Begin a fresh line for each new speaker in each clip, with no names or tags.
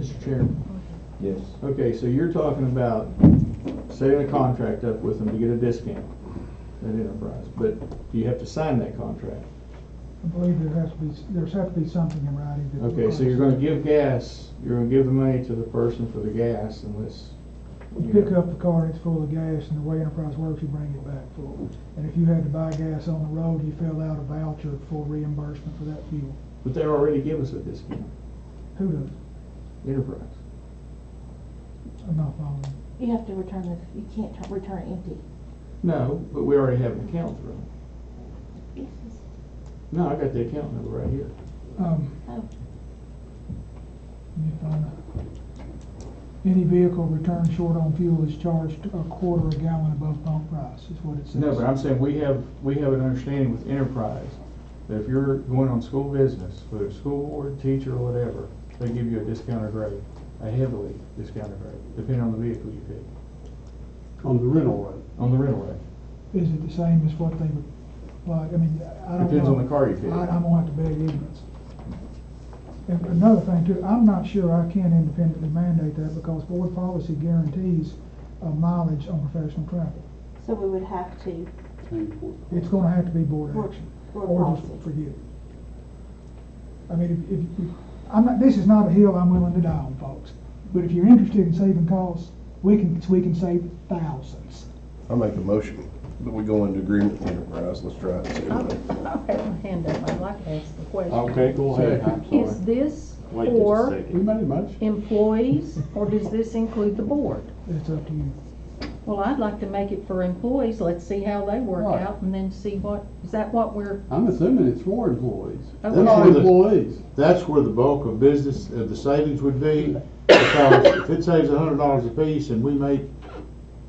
Mr. Chairman,
Yes.
okay, so you're talking about setting a contract up with them to get a discount at Enterprise, but you have to sign that contract.
I believe there has to be, there's have to be something in writing that.
Okay, so you're gonna give gas, you're gonna give the money to the person for the gas unless.
You
you know.
pick up the car and it's full of gas, and the way Enterprise works, you bring it back full. And if you had to buy gas on the road, you fill out a voucher for reimbursement for that fuel.
But they already give us a discount,
Who does?
Enterprise.
I'm not following.
You have to return the, you can't tu- return it empty.
No, but we already have an account for them.
Yes.
No, I got the account number right here.
Um,
Oh.
let me find it. Any vehicle returned short on fuel is charged a quarter a gallon above pump price, is what it says.
No, but I'm saying we have, we have an understanding with Enterprise that if you're going on school business, whether it's school board, teacher, or whatever, they give you a discounted rate, a heavily discounted rate, depending on the vehicle you pick,
on the rental rate.
on the rental rate.
Is it the same as what they would, like, I mean, I don't know.
Depends on the car you pick.
I, I'm gonna have to beg ignorance. And another thing too, I'm not sure I can independently mandate that because board policy guarantees uh, mileage on professional travel.
So we would have to,
Paying for it.
It's gonna have to be board
Board-
action.
board
Or just
policy.
forget it. I mean, if, if, if- I'm not, this is not a hill I'm willing to die on, folks. But if you're interested in saving costs, we can, we can save thousands.
I make a motion that we go into agreement with Enterprise, let's try it. soon.
I've had my hand up, I'd like to ask the question.
Okay, go ahead, I'm
Is
sorry.
this
Wait just a
for
second.
Who made a motion?
employees, or does this include the board?
It's up to you.
Well, I'd like to make it for employees, let's see how they work
Right.
out, and then see what, is that what we're,
I'm assuming it's for employees.
Okay.
They're not
That's where the-
employees.
That's where the bulk of business, of the savings would be, because if it saves a hundred dollars apiece and we make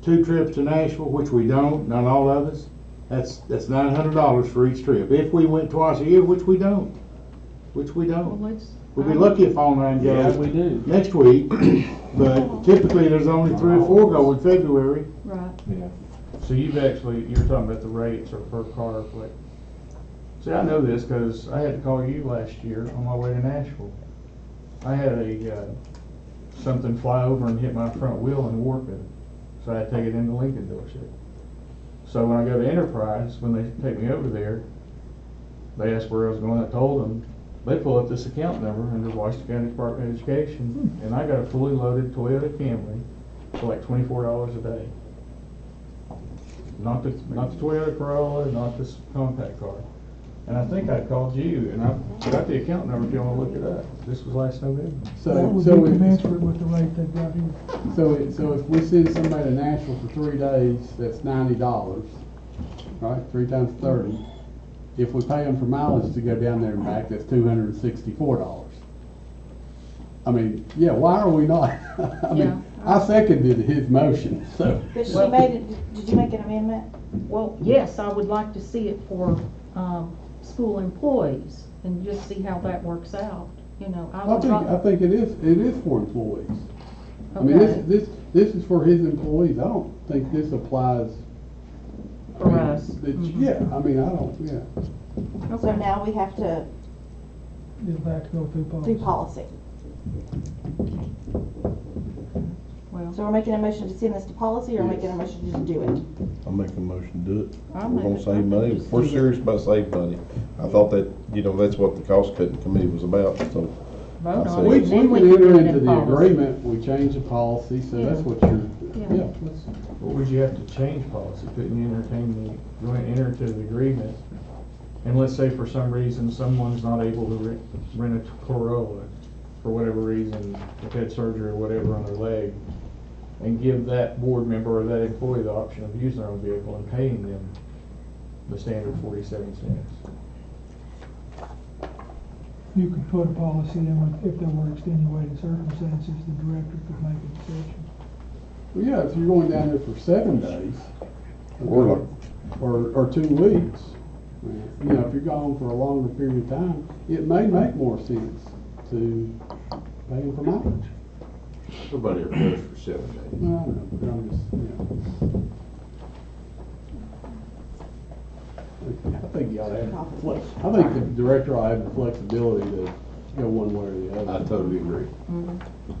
two trips to Nashville, which we don't, not all of us, that's, that's nine hundred dollars for each trip. If we went twice a year, which we don't, which we
well,
don't.
let's. um,
We'd be lucky if all nine goes
do.
next week, but typically there's only three or four go in February.
Right,
So you've actually, you're talking about the rates or per car, like, see, I know this because I had to call you last year on my way to Nashville. I had a, uh, something fly over and hit my front wheel in Warpin, so I had to take it into Lincoln dealership. So when I go to Enterprise, when they take me over there, they asked where I was going, I told them, they pull up this account number under Washington County Department of Education, and I got a fully loaded Toyota Camry for like twenty-four dollars a day. Not the, not the Toyota Corolla, not this compact car. And I think I called you, and I got the account number if you wanna look it up. This was last November.
That
So,
would be
so it's,
commensurate with the rate they've got here.
So, it- so if we send somebody to Nashville for three days, that's ninety dollars, right, three times thirty. If we pay them for mileage to go down there and back, that's two hundred and sixty-four dollars. I mean, yeah, why are we not, I
Yeah.
mean, I seconded his motion, so.
but she
Well-
made it, did you make an amendment?
well, yes, I would like to see it for, um, school employees, and just see how that works out, you know, I
I
would
think, I
like.
think it is, it is for employees. I mean,
Okay.
this, this, this is for his employees, I don't think this applies. I
For
mean,
us.
it's-
Mhm.
Yeah, I mean, I don't, yeah.
So
Okay.
now we have to
It's back to go through policy.
do policy.
Well,
So we're making a motion to send this to policy or
Yes.
making a motion to just do it?
I make a motion to do it.
I'll
We're
make
gonna
it-
save
I'll
money,
just
if we're
do it.
serious about saving money. I thought that, you know, that's what the cost cutting committee was about, so
vote
I'll
on
say-
We,
it,
we
and
can
then we can
enter
do it
into
in
the
policy.
agreement, we change the policy, so that's
Yeah.
what you're,
Yeah.
yeah, let's,
What would you have to change policy? Couldn't you entertain the, go and enter to the agreement? And let's say for some reason, someone's not able to rent, rent a Corolla for whatever reason, if they had surgery or whatever on their leg, and give that board member or that employee the option of using their own vehicle and paying them the standard forty-seven cents.
You could put a policy in with- if there were extenuating circumstances, the director could make a decision.
well, yeah, if you're going down there for seven days.
Or like-
Or, or two weeks, you know, if you're gone for a longer period of time, it may make more sense to pay them for mileage.
Nobody ever goes for seven days.
No, I know, but I'm just, you know. I think you ought to have, the flex- I think the director ought to have the flexibility to go one way or the other.
totally agree.
Mhm.